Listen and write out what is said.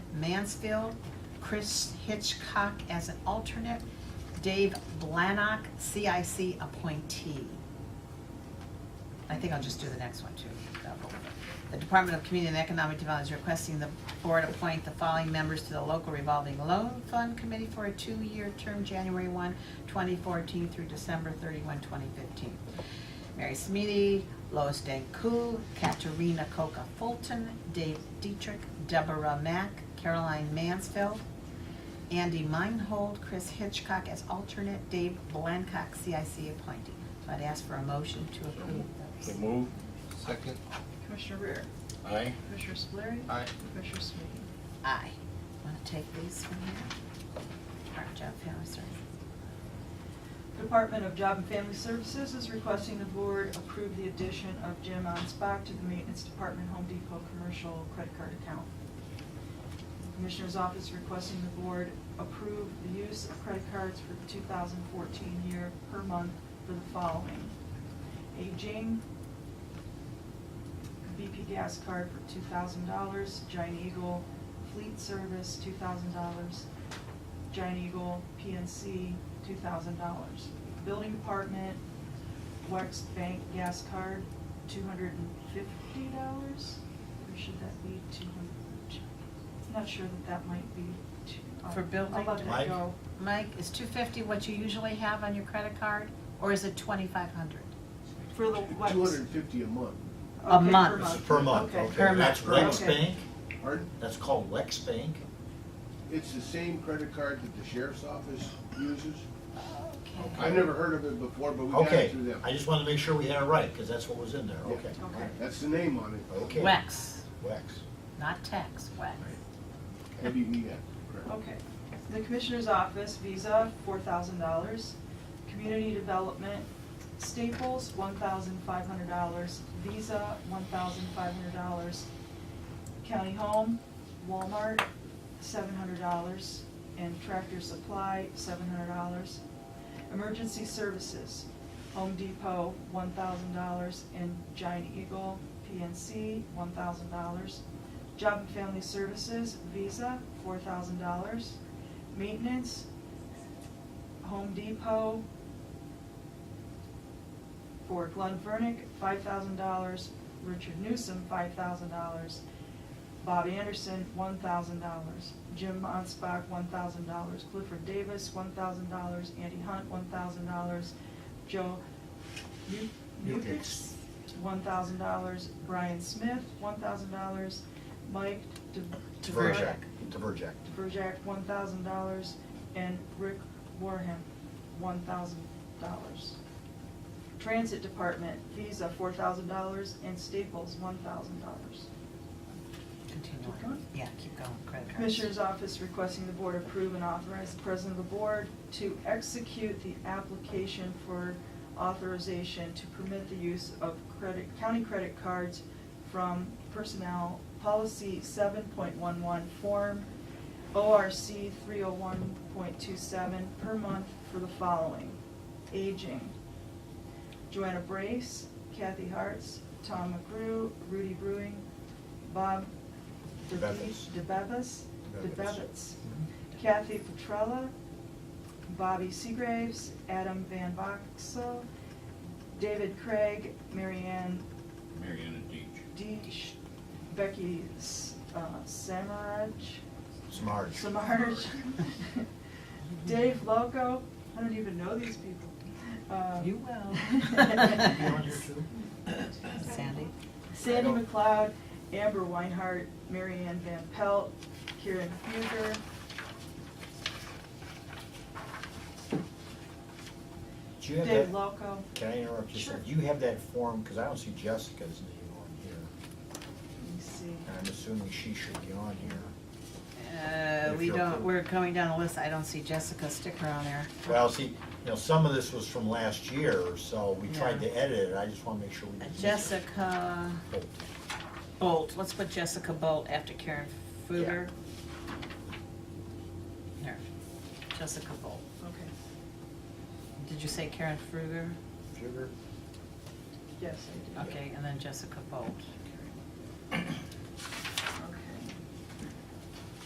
Mansfield, Chris Hitchcock as an alternate, Dave Blanock, CIC appointee. I think I'll just do the next one too. Double. The Department of Community and Economic Development is requesting the board appoint the following members to the local revolving loan fund committee for a two-year term, January 1, 2014 through December 31, 2015. Mary Smitty, Lois Danku, Katerina Coca Fulton, Dave Dietrich, Deborah Mack, Caroline Mansfield, Andy Meinhold, Chris Hitchcock as alternate, Dave Blancock, CIC appointee. So I'd ask for a motion to approve So those. move. Second. Commissioner Rea? Aye. Commissioner Spillier? Aye. Commissioner Smitty? Aye. Want to take these from here? All right, Job Family Services. Department of Job and Family Services is requesting the board approve the addition of Jim Onspach to the Maintenance Department Home Depot Commercial Credit Card Account. Commissioner's Office requesting the board approve the use of credit cards for the 2014 year per month for the following. Aging, BP gas card for two thousand dollars, Giant Eagle Fleet Service, two thousand dollars, Giant Eagle PNC, two thousand dollars. Building Department, Wex Bank gas card, two hundred and fifty dollars, or should that be two hundred? Not sure that that might be two. I'll- For building I'll let that Mike? go. Mike, is two fifty what you usually have on your credit card, or is it twenty-five hundred? For the Wex. Two hundred and fifty a month, Okay, A month. This is per month, okay. Per That's month. Wex Okay. Bank, pardon? that's called Wex Bank. It's the same credit card that the sheriff's office uses. Okay. I've never heard of it before, but we got it Okay, through them. I just wanted to make sure we had it right, because that's what was in there, Yeah. okay. Okay. That's the name on it. Okay. Wex, Wex. not tax, Wex. WEX, correct. Okay. The Commissioner's Office, Visa, four thousand dollars. Community Development, Staples, one thousand five hundred dollars. Visa, one thousand five hundred dollars. County Home, Walmart, seven hundred dollars. And Tractor Supply, seven hundred dollars. Emergency Services, Home Depot, one thousand dollars. And Giant Eagle, PNC, one thousand dollars. Job and Family Services, Visa, four thousand dollars. Maintenance, Home Depot, for Glenn Vernick, five thousand dollars. Richard Newsom, five thousand dollars. Bob Anderson, one thousand dollars. Jim Onspach, one thousand dollars. Clifford Davis, one thousand dollars. Andy Hunt, one thousand dollars. Joe Mu- Mukix. Mukix, one thousand dollars. Brian Smith, one thousand dollars. Mike De- Dvorak. Diverjack. Dvorak, one thousand dollars. And Rick Warham, one thousand dollars. Transit Department, Visa, four thousand dollars, and Staples, one thousand dollars. Continue Keep on. going? Yeah, keep going, credit cards. Commissioner's uh, Office requesting the board approve and authorize the president of the board to execute the application for authorization to permit the use of credit, county credit cards from Personnel Policy seven point one one form ORC three oh one point two seven per month for the following. Aging, Joanna Brace, Kathy Hartz, Tom McGrew, Rudy Brewing, Bob DeBevis. DeBevis, DeBevis. DeBevis, Kathy Petrella, Bobby Seagraves, Adam Van Boxel, David Craig, Marianne Mariana Deach. Deach, Becky S- uh, Samaraj, Smarge. Samaraj, Dave Loco, I don't even know these people. Uh, You will. You on here too? Sandy? Sandy I don't- McLeod, Amber Weinhardt, Mary Ann Van Pelt, Karen Huger. Do you have Dave that- Loco. Can I interrupt you? Sure. Do you have that form, because I don't see Jessica's name on here, Let me see. and I'm assuming she should be on here. Uh, we If you'll- don't, we're going down the list, I don't see Jessica's sticker on there. Well, see, you know, some of this was from last year, so we tried Yeah. to edit it, I just want to make sure we didn't miss it. Jessica Oh, Bolt, let's put Jessica Bolt after Karen Fuger. There, Jessica Bolt. Okay, Did you say Karen Fruger? Sugar? yes, I did. Okay, and then Jessica Bolt.